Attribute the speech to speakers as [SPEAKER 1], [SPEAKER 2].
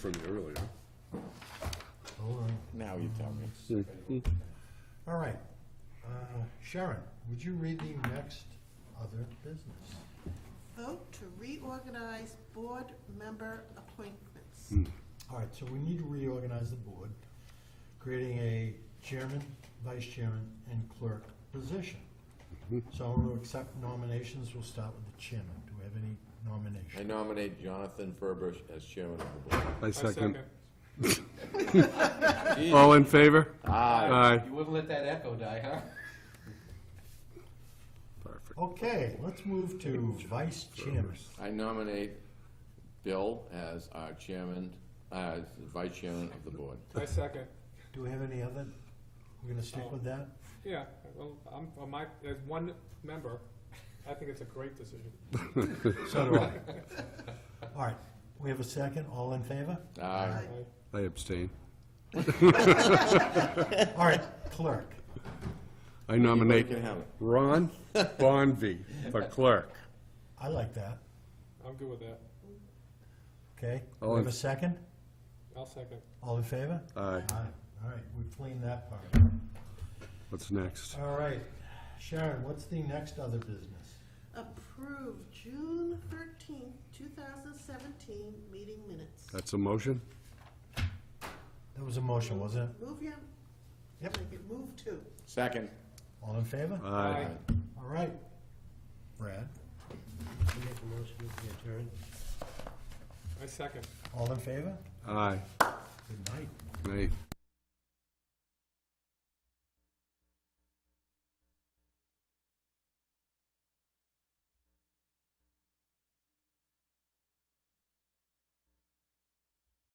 [SPEAKER 1] from you earlier.
[SPEAKER 2] Now you tell me.
[SPEAKER 3] All right. Uh, Sharon, would you read the next other business?
[SPEAKER 4] Vote to reorganize board member appointments.
[SPEAKER 3] All right, so we need to reorganize the board, creating a chairman, vice chairman, and clerk position. So I'm going to accept nominations. We'll start with the chairman. Do we have any
[SPEAKER 2] I
[SPEAKER 3] nominations?
[SPEAKER 2] nominate Jonathan Ferber as chairman of the board.
[SPEAKER 1] I second.
[SPEAKER 2] Jeez.
[SPEAKER 1] All in favor?
[SPEAKER 2] Aye.
[SPEAKER 1] Aye.
[SPEAKER 5] You wouldn't let that echo die, huh?
[SPEAKER 1] Perfect.
[SPEAKER 3] Okay, let's move to vice chairman.
[SPEAKER 2] I nominate Bill as our chairman, as the vice chairman of the board.
[SPEAKER 6] I second.
[SPEAKER 3] Do we have any other? We're going to stick with that?
[SPEAKER 6] Yeah, well, I'm, on my, as one member, I think it's a great decision.
[SPEAKER 3] So do I. All right, we have a second. All in favor?
[SPEAKER 2] Aye.
[SPEAKER 6] I-
[SPEAKER 1] I abstain.
[SPEAKER 3] All right, clerk.
[SPEAKER 1] I nominate
[SPEAKER 2] You can have it.
[SPEAKER 1] Ron Bonvy for clerk.
[SPEAKER 3] I like that.
[SPEAKER 6] I'm good with that.
[SPEAKER 3] Okay,
[SPEAKER 1] All
[SPEAKER 3] we have
[SPEAKER 1] in-
[SPEAKER 3] a second?
[SPEAKER 6] I'll second.
[SPEAKER 3] All in favor?
[SPEAKER 1] Aye.
[SPEAKER 3] Aye. All right, we've cleaned that part.
[SPEAKER 1] What's next?
[SPEAKER 3] All right, Sharon, what's the next other business?
[SPEAKER 4] Approve June thirteenth, two thousand seventeen, meeting minutes.
[SPEAKER 1] That's a motion?
[SPEAKER 3] That was a motion, wasn't it?
[SPEAKER 4] Move your,
[SPEAKER 3] Yep.
[SPEAKER 4] make it move to.
[SPEAKER 2] Second.
[SPEAKER 3] All in favor?
[SPEAKER 1] Aye.
[SPEAKER 3] All right. Brad,
[SPEAKER 6] I second.
[SPEAKER 3] all in favor?
[SPEAKER 1] Aye.
[SPEAKER 3] Good night.
[SPEAKER 1] Nay.